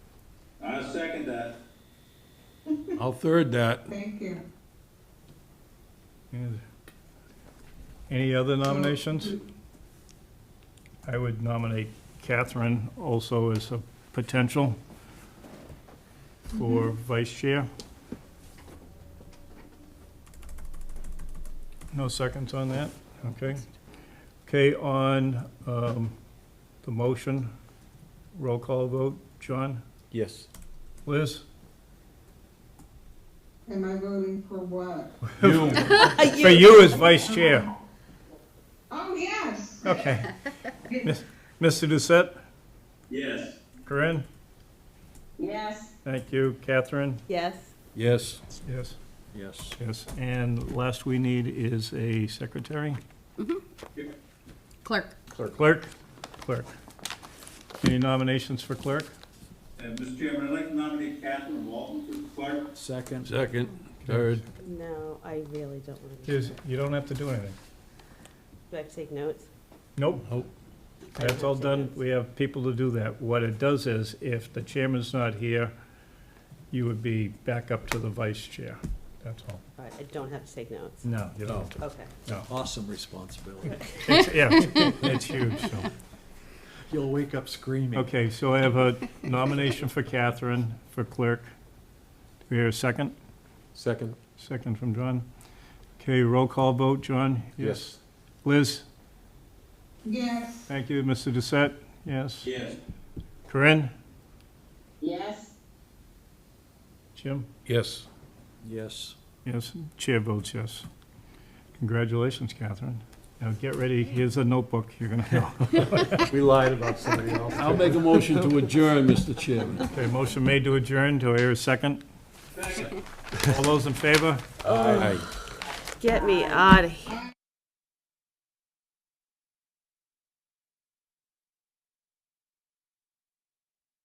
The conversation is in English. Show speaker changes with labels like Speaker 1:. Speaker 1: second that.
Speaker 2: I'll third that.
Speaker 3: Thank you.
Speaker 4: And Any other nominations? I would nominate Catherine also as a potential for vice chair. No seconds on that? Okay. Okay, on um, the motion, roll call vote. John?
Speaker 5: Yes.
Speaker 4: Liz?
Speaker 3: Am I voting for what?
Speaker 4: For you as vice chair.
Speaker 3: Oh, yes.
Speaker 4: Okay. Mr. Doucette?
Speaker 1: Yes.
Speaker 4: Corinne?
Speaker 3: Yes.
Speaker 4: Thank you. Catherine?
Speaker 6: Yes.
Speaker 2: Yes.
Speaker 4: Yes.
Speaker 5: Yes.
Speaker 4: Yes, and last we need is a secretary,
Speaker 6: Clerk.
Speaker 4: clerk, clerk. Any nominations for clerk?
Speaker 1: And Mr. Chairman, I'd like to nominate Catherine Walton for the clerk.
Speaker 5: Second.
Speaker 2: Second, third.
Speaker 6: No, I really don't want to.
Speaker 4: Is, you don't have to do anything.
Speaker 6: Do I have to take notes?
Speaker 4: Nope.
Speaker 2: Nope.
Speaker 4: That's all done, we have people to do that. What it does is, if the chairman's not here, you would be back up to the vice chair, that's all.
Speaker 6: All right, I don't have to take notes.
Speaker 4: No, you don't.
Speaker 6: Okay.
Speaker 5: Awesome responsibility.
Speaker 4: It's- Yeah, it's huge, so.
Speaker 5: You'll wake up screaming.
Speaker 4: Okay, so I have a nomination for Catherine for clerk. Do we hear a second?
Speaker 5: Second.
Speaker 4: Second from John. Okay, roll call vote, John?
Speaker 5: Yes.
Speaker 4: Liz?
Speaker 3: Yes.
Speaker 4: Thank you. Mr. Doucette? Yes.
Speaker 1: Yes.
Speaker 4: Corinne?
Speaker 3: Yes.
Speaker 4: Jim?
Speaker 2: Yes.
Speaker 5: Yes.
Speaker 4: Yes. Chair votes yes. Congratulations, Catherine. Now get ready, here's a notebook you're gonna have.
Speaker 5: We lied about somebody else.
Speaker 2: I'll make a motion to adjourn, Mr. Chairman.
Speaker 4: Okay, motion made to adjourn. Do I hear a second?
Speaker 1: Second.
Speaker 4: All those in favor?
Speaker 2: Aye.
Speaker 6: Get me out of here.